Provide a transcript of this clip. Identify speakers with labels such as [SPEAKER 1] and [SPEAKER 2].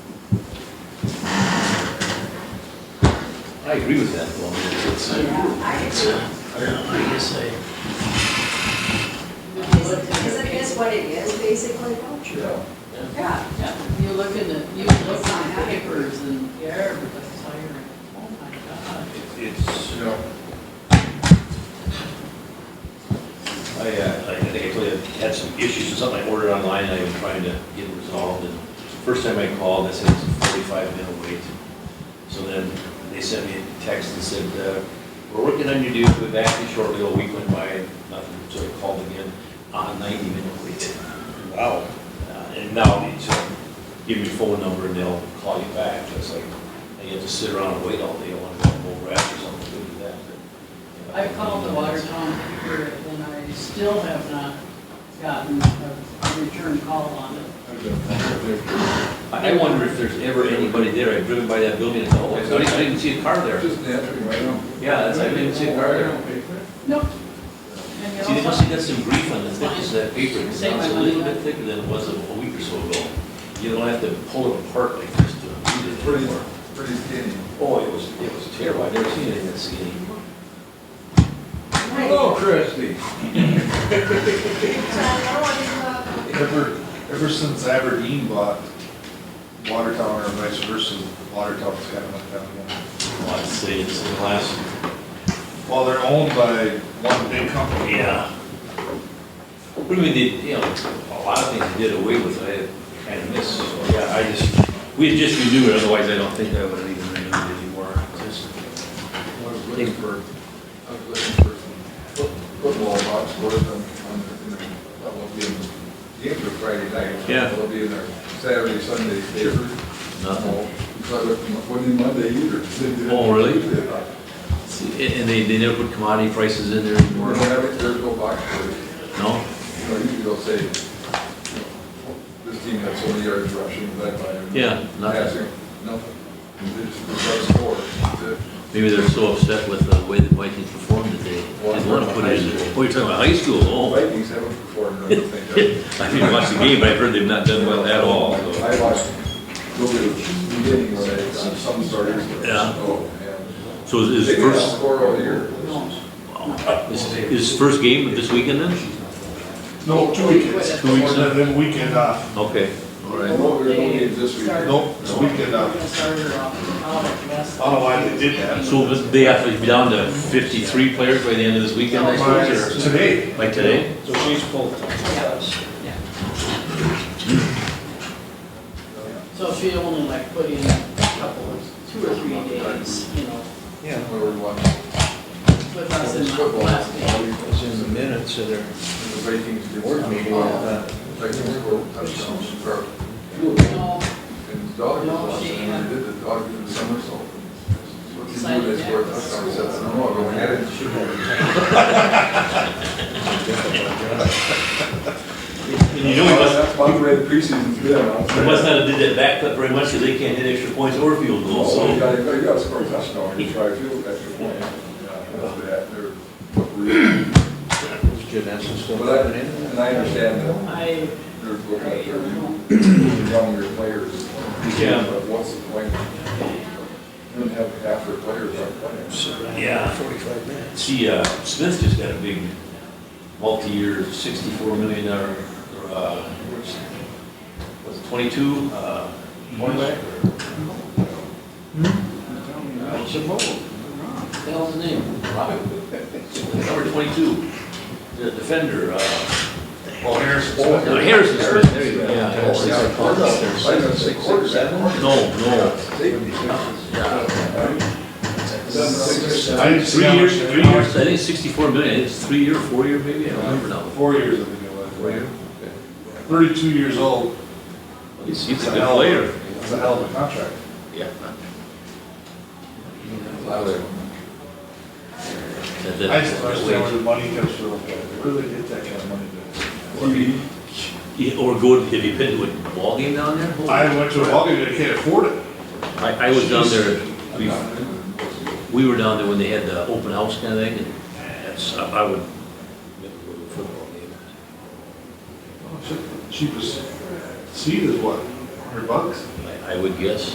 [SPEAKER 1] I agree with that, well, it's,
[SPEAKER 2] Yeah,
[SPEAKER 1] it's, uh, I don't know, I guess I,
[SPEAKER 2] Because it is what it is, basically,
[SPEAKER 3] Yeah.
[SPEAKER 2] Yeah.
[SPEAKER 4] Yeah, you look in the, you look on the papers and, yeah, everybody's like, oh my
[SPEAKER 1] it's,
[SPEAKER 3] Yeah.
[SPEAKER 1] I, uh, I think I told you, I had some issues with something I ordered online, and I was trying to get it resolved, and first time I called, they said it's a forty-five minute wait. So then, they sent me a text and said, uh, we're working on your due, we'll be back to you shortly, a week went by, nothing, so I called again, on ninety minute wait. Wow. Uh, And now, they just give me your phone number and they'll call you back, it's like, I get to sit around and wait all day, I want to go bowl rap or something, do that. but-
[SPEAKER 4] God. I called the Watertown paper and I still have not gotten a return call on it.
[SPEAKER 1] I I wonder if there's ever anybody there, I've driven by that building, and oh, I didn't- I didn't see a car there.
[SPEAKER 3] Just naturally, right now.
[SPEAKER 1] Yeah, that's, I didn't see a car there.
[SPEAKER 4] Nope.
[SPEAKER 1] See, they must
[SPEAKER 4] And
[SPEAKER 1] have got some grief on the thickness of that paper, because now it's a little bit thicker than it was a a week or so ago. You don't have to pull it apart like this to read it
[SPEAKER 3] Pretty,
[SPEAKER 1] anymore.
[SPEAKER 3] pretty skinny.
[SPEAKER 1] Oh, it was, it was terrible, I've never seen anything that skinny.
[SPEAKER 3] Hello, Christie.
[SPEAKER 2] uh,
[SPEAKER 3] Ever, ever since Aberdeen bought Watertown or vice versa, Watertown's kind of went down again.
[SPEAKER 1] Well, Oh, I'd say it's the last,
[SPEAKER 3] Well, they're owned by one big company.
[SPEAKER 1] yeah. What do you mean, they- you know, a lot of things they did away with, I kind of missed, so, yeah, I just, we had just renewed it, otherwise I don't think I would have even renewed it anymore. Just-
[SPEAKER 3] I was looking for, I was looking for some football box scores on, on, the- that will be in the games are Friday night.
[SPEAKER 1] Yeah.
[SPEAKER 3] That'll be in there Saturday, Sunday, paper.
[SPEAKER 1] Nothing.
[SPEAKER 3] So I looked, wasn't Monday either. They did it
[SPEAKER 1] Uh-huh. Oh, really?
[SPEAKER 3] Tuesday.
[SPEAKER 1] And and they, they never put commodity prices in there anymore?
[SPEAKER 3] We're gonna have it, there's no box scores.
[SPEAKER 1] No?
[SPEAKER 3] You know, usually they'll say, you know, this team had so many yards rushing, that by.
[SPEAKER 1] Yeah, nothing.
[SPEAKER 3] Passing, nothing. They just, they got a score. That's it.
[SPEAKER 1] Maybe they're so upset with the way the Vikings performed that they didn't want to put it in there. Oh, you're talking about high school,
[SPEAKER 3] The
[SPEAKER 1] oh.
[SPEAKER 3] Vikings haven't performed, I don't think.
[SPEAKER 1] I didn't watch the game, but I've heard they've not done well at all, so.
[SPEAKER 3] I watched, go to the beginning of it, on some starters. but-
[SPEAKER 1] Yeah.
[SPEAKER 3] Oh, man.
[SPEAKER 1] So is
[SPEAKER 3] They
[SPEAKER 1] is
[SPEAKER 3] can
[SPEAKER 1] first,
[SPEAKER 3] score all year.
[SPEAKER 1] is is first game this weekend then?
[SPEAKER 5] No, two weekends.
[SPEAKER 1] Two weeks, huh?
[SPEAKER 5] Then- Then weekend off.
[SPEAKER 1] Okay, all right.
[SPEAKER 3] No, there's no games this week.
[SPEAKER 5] Nope, it's weekend
[SPEAKER 4] We're
[SPEAKER 5] off.
[SPEAKER 4] gonna start her off out at West.
[SPEAKER 5] I don't know why they did that.
[SPEAKER 1] So they have to be down to fifty-three players by the end of this weekend, I suppose,
[SPEAKER 5] Today.
[SPEAKER 1] or like today?
[SPEAKER 6] So she's full-time.
[SPEAKER 4] Yeah. So she only like put in a couple, of two or three days, you know,
[SPEAKER 6] Yeah.
[SPEAKER 3] Where we watch
[SPEAKER 4] with us in the
[SPEAKER 3] football.
[SPEAKER 4] last game.
[SPEAKER 3] all week.
[SPEAKER 6] It's in the minutes of their
[SPEAKER 3] And The Vikings do.
[SPEAKER 6] board meeting. uh,
[SPEAKER 3] Vikings score touchdowns, or two of them.
[SPEAKER 4] No,
[SPEAKER 3] And his dog was
[SPEAKER 4] No,
[SPEAKER 3] lost,
[SPEAKER 4] she,
[SPEAKER 3] and
[SPEAKER 4] uh,
[SPEAKER 3] did the dog did a somersault. What did
[SPEAKER 4] decided
[SPEAKER 3] you do? They
[SPEAKER 4] that
[SPEAKER 3] scored a
[SPEAKER 4] was
[SPEAKER 3] touchdown.
[SPEAKER 4] cool.
[SPEAKER 3] He said, "No, I'll go ahead and shoot him."
[SPEAKER 1] And you know he must,
[SPEAKER 3] That's about the way the preseason's been. I'll
[SPEAKER 1] he
[SPEAKER 3] say.
[SPEAKER 1] must not have did that back cut very much, because they can't hit extra points or field goals,
[SPEAKER 3] Oh,
[SPEAKER 1] so.
[SPEAKER 3] You gotta, you gotta score a touchdown, you try to field that extra point. That's bad. They're-
[SPEAKER 6] Is Janessa still
[SPEAKER 3] But I,
[SPEAKER 6] coming in?
[SPEAKER 3] and I understand that
[SPEAKER 4] I,
[SPEAKER 3] they're looking at their younger players.
[SPEAKER 1] Yeah.
[SPEAKER 3] But what's the point? You don't have half your players on playing.
[SPEAKER 1] Yeah.
[SPEAKER 6] Forty-five minutes.
[SPEAKER 1] See, uh, Smith just got a big multi-year sixty-four million dollar, uh, was it twenty-two, uh, cornerback?
[SPEAKER 4] that was the name.
[SPEAKER 1] Number twenty-two, the defender, uh,
[SPEAKER 3] Well, Harris.
[SPEAKER 1] Oh, no, Harrison Smith, there you go. Yeah, Harrison
[SPEAKER 3] Yeah,
[SPEAKER 1] Smith.
[SPEAKER 3] quarterback. I know, six, quarterback.
[SPEAKER 1] No, no.
[SPEAKER 5] I didn't see
[SPEAKER 1] Three
[SPEAKER 5] how much.
[SPEAKER 1] years, three years, I think sixty-four million, I think it's three year, four year maybe, I don't remember now.
[SPEAKER 5] Four years, I think it was. Thirty-two years old.
[SPEAKER 1] He's, he's a good player.
[SPEAKER 5] It's a hell of a contract.
[SPEAKER 1] Yeah. That- that-
[SPEAKER 5] I just
[SPEAKER 1] that
[SPEAKER 5] understand where
[SPEAKER 1] wage.
[SPEAKER 5] the money comes from. Where do they get that kind of money?
[SPEAKER 1] Yeah, Or go, to- have you been to a ball game down there?
[SPEAKER 5] to?
[SPEAKER 1] Holy
[SPEAKER 5] I went to a ballgame, they can't afford it.
[SPEAKER 1] I, I was down there, we, we were down there when they had the open house kind of thing, and that's, I I would never go to a football game.
[SPEAKER 5] Oh, Cheapest seat is what, hundred bucks?
[SPEAKER 1] I I would guess.